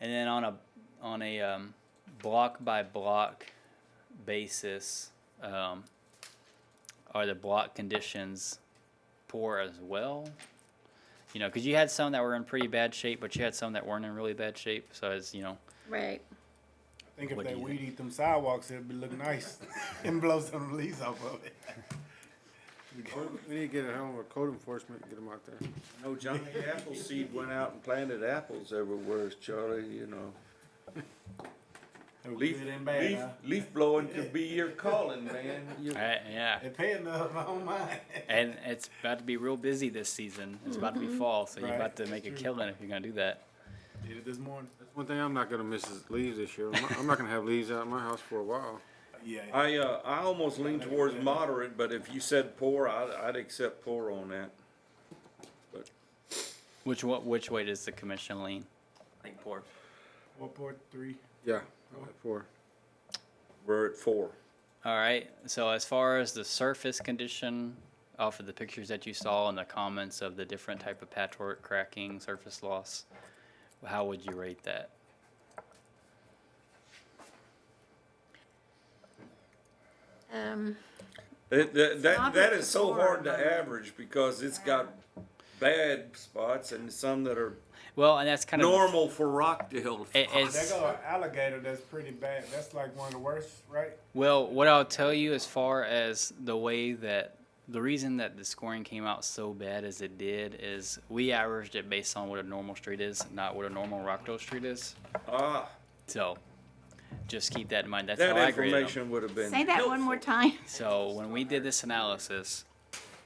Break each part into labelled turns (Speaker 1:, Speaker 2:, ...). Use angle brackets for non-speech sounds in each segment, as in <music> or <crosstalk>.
Speaker 1: and then on a on a um, block by block basis, um, are the block conditions poor as well? You know, because you had some that were in pretty bad shape, but you had some that weren't in really bad shape. So it's you know,
Speaker 2: Right.
Speaker 3: I think if
Speaker 1: What do
Speaker 3: they
Speaker 1: you
Speaker 3: weed eat them sidewalks, it'd be look nice <laughs> and blow some leaves off of it.
Speaker 4: We need to get a hell of a code enforcement, and get them out there.
Speaker 5: No,
Speaker 4: <laughs>
Speaker 5: Johnny Appleseed went out and planted apples everywhere, Charlie, you know.
Speaker 3: It was
Speaker 5: Leaf,
Speaker 3: good and bad,
Speaker 5: leaf,
Speaker 3: huh?
Speaker 5: leaf blowing could be your calling, man. You-
Speaker 1: I- yeah.
Speaker 3: They pay enough, I don't mind.
Speaker 1: And it's about to be real busy this season. It's about to be fall, so you're
Speaker 3: Right.
Speaker 1: about to make a killing if you're gonna do that.
Speaker 3: Did it this morning.
Speaker 4: One thing I'm not gonna miss is leaves this year. I'm not- I'm not gonna have leaves out in my house for a while.
Speaker 3: Yeah,
Speaker 5: I, uh, I almost lean towards moderate, but if you said poor, I'd, I'd accept poor on that.
Speaker 1: Which what which way does the commission lean? Like poor.
Speaker 3: four, four, three.
Speaker 4: Yeah. I'm at Four.
Speaker 5: We're at four.
Speaker 1: All right. So as far as the surface condition off of the pictures that you saw and the comments of the different type of patchwork cracking, surface loss, how would you rate that?
Speaker 2: Um,
Speaker 5: That, that, that, that is so
Speaker 2: Moderate to
Speaker 5: hard to
Speaker 2: poor.
Speaker 5: average because it's got bad spots and some that are
Speaker 1: Well, and that's kind of
Speaker 5: normal for Rockdale.
Speaker 1: It-
Speaker 3: That
Speaker 1: it's-
Speaker 3: go an alligator that's pretty bad. That's like one of the worst, right?
Speaker 1: Well, what I'll tell you as far as the way that the reason that the scoring came out so bad as it did is we averaged it based on what a normal street is, not what a normal Rockdale street is.
Speaker 5: Ah,
Speaker 1: So just keep that in mind. That's how
Speaker 5: that
Speaker 1: I graded them.
Speaker 5: information would have been.
Speaker 2: say that one more
Speaker 5: helpful.
Speaker 2: time.
Speaker 1: So when we did this analysis,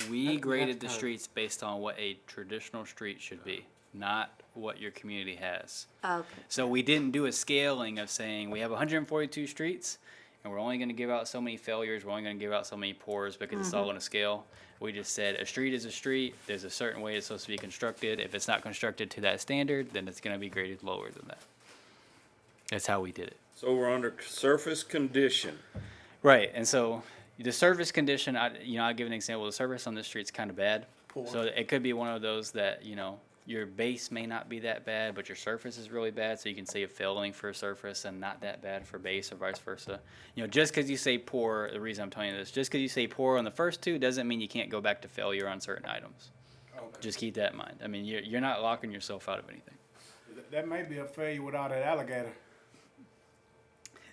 Speaker 1: we graded the streets based on what a traditional street should be, not what your community has.
Speaker 2: Okay.
Speaker 1: So we didn't do a scaling of saying we have 142 streets and we're only going to give out so many failures, we're only going to give out so many pours because it's all on a scale. We just said a street is a street. There's a certain way it's supposed to be constructed. If it's not constructed to that standard, then it's going to be graded lower than that. That's how we did it.
Speaker 5: So we're under surface condition.
Speaker 1: Right, and so the surface condition, I, you know, I'll give an example. The surface on this street's kind of bad. So it could be one of those that, you know, your base may not be that bad, but your surface is really bad. So you can say a failing for a surface and not that bad for base or vice versa. You know, just because you say poor, the reason I'm telling you this, just because you say poor on the first two doesn't mean you can't go back to failure on certain items. Just keep that in mind. I mean, you're, you're not locking yourself out of anything.
Speaker 3: That- That may be a failure without that alligator.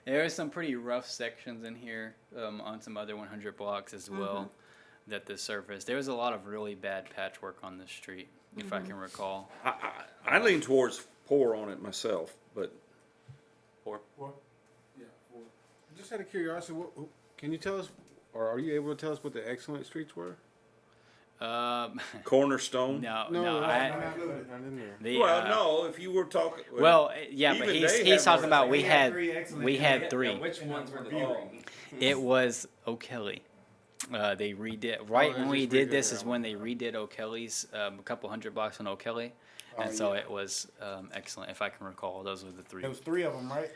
Speaker 1: There are some pretty rough sections in here um, on some other 100 blocks as well that the surface. There was a lot of really bad patchwork on this street, if I can recall.
Speaker 5: I, I, I lean towards poor on it myself, but
Speaker 1: Or
Speaker 3: Four.
Speaker 4: Just out of curiosity, what, who- can you tell us, or are you able to tell us what the excellent streets were?
Speaker 1: um, <laughs>
Speaker 5: cornerstone.
Speaker 1: no, Uh, no,
Speaker 4: No, no,
Speaker 1: I,
Speaker 4: no,
Speaker 3: Not
Speaker 4: no.
Speaker 3: good.
Speaker 4: Not in there.
Speaker 1: the,
Speaker 5: well,
Speaker 1: uh,
Speaker 5: no, if you were talking.
Speaker 1: Well, eh, yeah, but
Speaker 5: Even
Speaker 1: he's,
Speaker 5: they
Speaker 1: he's
Speaker 5: have more
Speaker 1: talking about we
Speaker 3: We had
Speaker 1: had
Speaker 3: three excellent
Speaker 1: we had
Speaker 3: candidates.
Speaker 1: three.
Speaker 6: Which ones were the
Speaker 3: Review.
Speaker 6: low?
Speaker 1: It was O'Kelly. Uh, they redid right
Speaker 4: they
Speaker 1: when we
Speaker 4: just
Speaker 1: did
Speaker 4: redid
Speaker 1: this
Speaker 4: that
Speaker 1: is when they redid O'Kelly's um, a couple hundred blocks on O'Kelly, and so it was um, excellent if I can recall. Those were the three.
Speaker 3: There was three of them, right?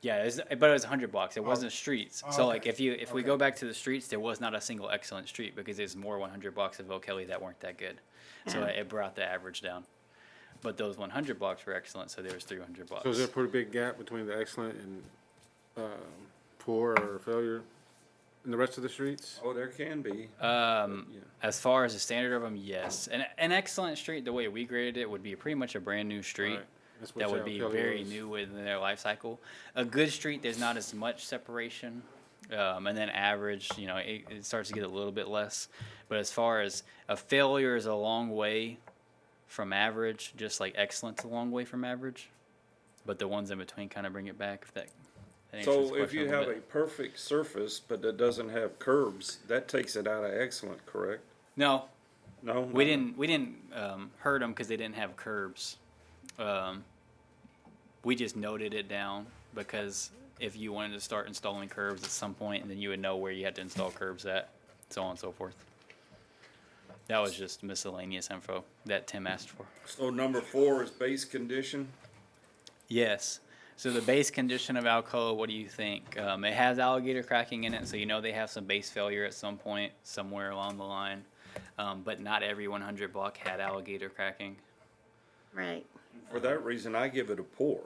Speaker 1: Yeah, it was, but it was 100 blocks. It wasn't streets.
Speaker 3: Oh,
Speaker 1: so
Speaker 3: okay.
Speaker 1: like if you if we
Speaker 3: Okay.
Speaker 1: go back to the streets, there was not a single excellent street because there's more 100 blocks of O'Kelly that weren't that good. So
Speaker 3: Mm-hmm.
Speaker 2: Yeah.
Speaker 1: it brought the average down. But those 100 blocks were excellent, so there was 300 blocks.
Speaker 4: So is there a pretty big gap between the excellent and, um, poor or failure in the rest of the streets?
Speaker 5: oh, there can be.
Speaker 1: um,
Speaker 5: Yeah.
Speaker 1: as far as the standard of them, yes. An an excellent street, the way we graded it, would be pretty much a brand new street.
Speaker 4: Right. That's what
Speaker 1: that would
Speaker 4: South
Speaker 1: be
Speaker 4: Kelly
Speaker 1: very
Speaker 4: was.
Speaker 1: new within their life cycle. A good street, there's not as much separation, um, and then average, you know, it, it starts to get a little bit less. But as far as a failure is a long way from average, just like excellence a long way from average. But the ones in between kind of bring it back. If that, that answers the
Speaker 5: So if
Speaker 1: question
Speaker 5: you
Speaker 1: little
Speaker 5: have
Speaker 1: bit.
Speaker 5: a perfect surface, but that doesn't have curbs, that takes it out of excellent, correct?
Speaker 1: no,
Speaker 5: No?
Speaker 1: We
Speaker 5: No.
Speaker 1: didn't we didn't um, hurt them because they didn't have curbs. Um, we just noted it down because if you wanted to start installing curbs at some point, then you would know where you had to install curbs at, so on and so forth. That was just miscellaneous info that Tim asked for.
Speaker 5: So number four is base condition.
Speaker 1: Yes. So the base condition of Alcoa, what do you think? Um, it has alligator cracking in it, so you know they have some base failure at some point somewhere along the line. Um, but not every 100 block had alligator cracking.
Speaker 2: Right.
Speaker 5: For that reason, I give it a poor.